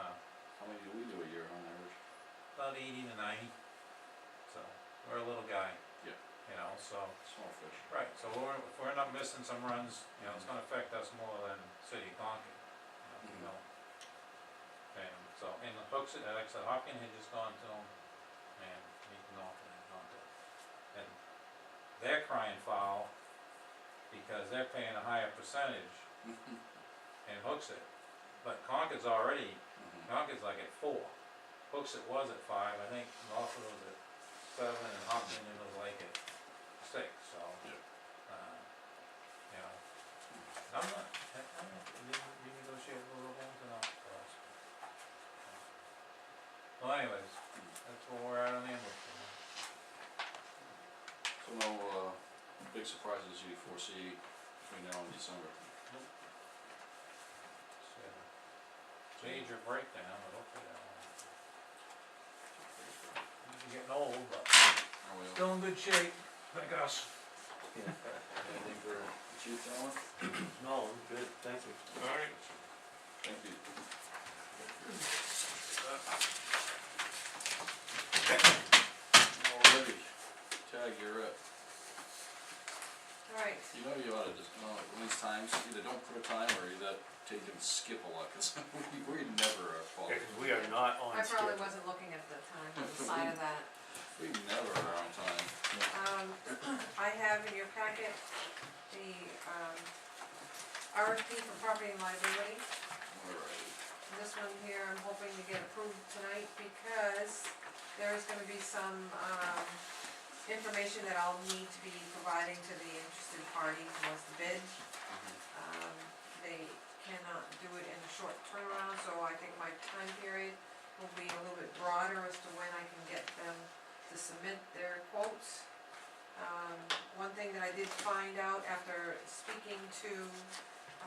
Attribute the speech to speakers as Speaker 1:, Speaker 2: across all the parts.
Speaker 1: How many do we do a year on average?
Speaker 2: Uh, about eighty to ninety. So, we're a little guy.
Speaker 1: Yeah.
Speaker 2: You know, so,
Speaker 1: Small fish.
Speaker 2: right, so we're, if we're not missing some runs, you know, it's gonna affect us more than City of Concord, you
Speaker 1: Mhm.
Speaker 2: know, you know. And so, and the hooks, and like I said, Hopkins had just gone to them, and Meakin Norton had gone to 'em. And they're crying foul, because they're paying a higher percentage and hooks it. But Concord's already
Speaker 1: Mhm.
Speaker 2: Yonkers like at four, Hooks it was at five, I think Lawson was at seven, and Hopkins it was like at six, so.
Speaker 1: Yeah.
Speaker 2: uh, You know, I'm not, I I don't, know, did we renegotiate rural homes or not for us? Well anyways, that's where we're at on the ambush.
Speaker 1: So no, uh, big surprises you foresee between now and December?
Speaker 2: It's a Major breakdown, but hopefully that won't. happen. We're Getting old, but
Speaker 1: Are we,
Speaker 2: still in good shape, I guess.
Speaker 1: anything for the chief, Alan?
Speaker 3: No, I'm good, thank you.
Speaker 2: Alright.
Speaker 1: Thank you. Alrighty, Tag, you're up.
Speaker 4: Alright,
Speaker 1: You know you oughta just, uh, at least times, either don't put a time or either take and skip a lot, cause we, we never are
Speaker 3: Yeah,
Speaker 1: following.
Speaker 3: 'cause we are not on
Speaker 4: I
Speaker 3: schedule.
Speaker 4: probably wasn't looking at the time, on the side of that.
Speaker 1: We never are on time.
Speaker 4: Um, I have in your packet the, um, RFP for property and liability.
Speaker 1: Alright.
Speaker 4: And This one here, I'm hoping to get approved tonight because there is gonna be some, um, information that I'll need to be providing to the interested party who wants to bid. Um, they cannot do it in a short turnaround, so I think my time period will be a little bit broader as to when I can get them to submit their quotes. Um, one thing that I did find out after speaking to,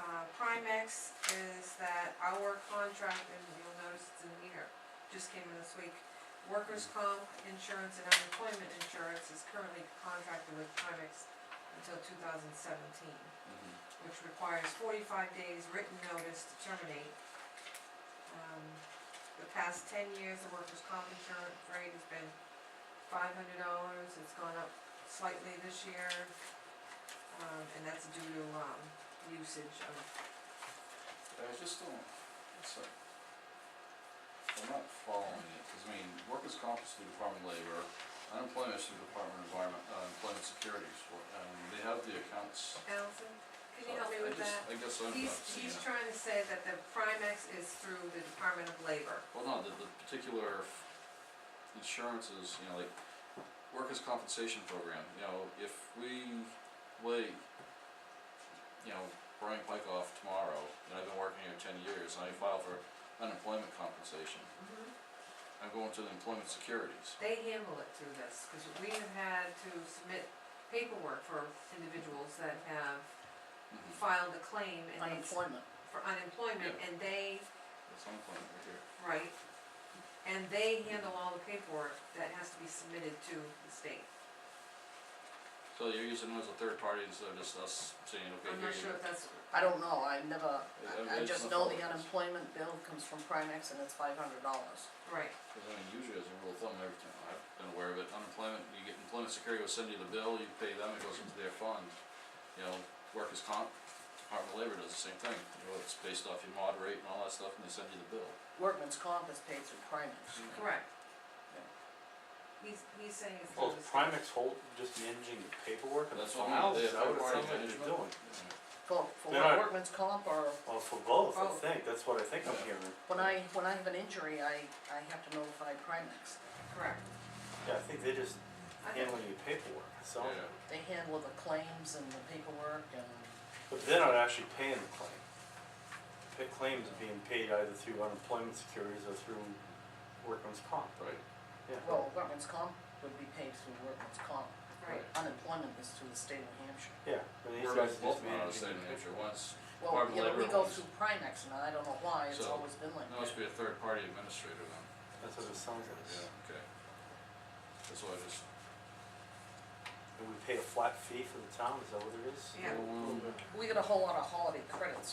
Speaker 4: uh, Primex is that our contract, and you'll notice it's in here, just came in this week. Workers' comp insurance and unemployment insurance is currently contracted with Primex until two thousand seventeen
Speaker 1: Mhm.
Speaker 4: which requires forty-five days written notice to terminate. Um, The past ten years, the workers' comp insurance rate has been five hundred dollars, it's gone up slightly this year. Um, and that's due to, um, usage of,
Speaker 1: I just don't, it's like, I'm not following it, cause I mean, workers' comp is through Department of Labor, unemployment is through Department of Environment, uh, Employment Security, so, um, they have the accounts.
Speaker 4: Allison, can you
Speaker 1: so
Speaker 4: help me
Speaker 1: I
Speaker 4: with
Speaker 1: just-
Speaker 4: that?
Speaker 1: I guess I'm
Speaker 4: He's,
Speaker 1: not seeing
Speaker 4: he's
Speaker 1: it.
Speaker 4: trying to say that the Primex is through the Department of Labor.
Speaker 1: Well, no, the, the particular f- insurances, you know, like, workers' compensation program, you know, if we lay, you know, Brian Pike off tomorrow, and I've been working here ten years, and I file for unemployment compensation, I'm going to the employment securities.
Speaker 4: They handle it through this, because we have had to submit paperwork for individuals that have
Speaker 1: Mhm.
Speaker 4: filed a claim and they,
Speaker 5: unemployment.
Speaker 4: for unemployment, and they,
Speaker 1: That's unemployment right here.
Speaker 4: right, and they handle all the paperwork that has to be submitted to the state.
Speaker 1: So you're using them as a third party instead of just us saying, okay,
Speaker 4: I'm
Speaker 1: here you
Speaker 4: not sure
Speaker 1: go.
Speaker 4: if that's,
Speaker 5: I don't know, I never,
Speaker 1: Yeah,
Speaker 5: I, I
Speaker 1: it's
Speaker 5: just
Speaker 1: not
Speaker 5: know
Speaker 1: always.
Speaker 5: the unemployment bill comes from Primex and it's five hundred dollars.
Speaker 4: right,
Speaker 1: Cause I mean, usually as a rule of thumb, every time, I've been aware of it, unemployment, you get employment security, will send you the bill, you pay them, it goes into their fund. You know, workers' comp, Department of Labor does the same thing, you know, it's based off your mod rate and all that stuff, and they send you the bill.
Speaker 5: Workman's comp is paid through Primex.
Speaker 4: correct. He's, he's saying it's
Speaker 3: Well,
Speaker 1: Oh,
Speaker 4: through the
Speaker 3: is
Speaker 4: state.
Speaker 3: Oh, Primex hold, just managing the paperwork and the
Speaker 1: That's what I mean,
Speaker 3: files,
Speaker 1: they
Speaker 3: is
Speaker 1: have
Speaker 3: that what
Speaker 1: third-party
Speaker 3: it sounds like they're
Speaker 1: management.
Speaker 3: doing?
Speaker 5: For, for
Speaker 3: They're not-
Speaker 5: workman's comp or,
Speaker 3: Well, for both, I
Speaker 4: Both.
Speaker 3: think, that's what I think I'm
Speaker 1: Yeah.
Speaker 3: hearing.
Speaker 5: when I, when I have an injury, I, I have to notify Primex.
Speaker 4: Correct.
Speaker 3: Yeah, I think they're just
Speaker 4: I think-
Speaker 3: handling your paperwork, so,
Speaker 1: Yeah,
Speaker 5: They handle the claims and the paperwork and,
Speaker 3: but they're not actually paying the claim. The pa- claims are being paid either through unemployment securities or through workman's comp,
Speaker 1: right,
Speaker 3: yeah.
Speaker 5: well, workman's comp would be paid through workman's comp.
Speaker 4: Right,
Speaker 5: Unemployment is through the state of New Hampshire.
Speaker 3: Yeah, and these
Speaker 1: we're
Speaker 3: guys are
Speaker 1: both not on
Speaker 3: just
Speaker 1: the
Speaker 3: managing
Speaker 1: same
Speaker 3: the
Speaker 1: picture, once,
Speaker 5: Well,
Speaker 1: Department
Speaker 5: you
Speaker 1: of
Speaker 5: know, we
Speaker 1: Labor
Speaker 5: go
Speaker 1: owns-
Speaker 5: through Primex and I don't know why, it's
Speaker 1: So,
Speaker 5: always been like
Speaker 1: it
Speaker 5: that.
Speaker 1: must be a third party administrator then,
Speaker 3: That's what it sounds like.
Speaker 1: yeah, okay. That's why I just,
Speaker 3: And we pay a flat fee for the town, is that what it is?
Speaker 4: Yeah.
Speaker 1: Well,
Speaker 5: We get a whole lot of holiday credits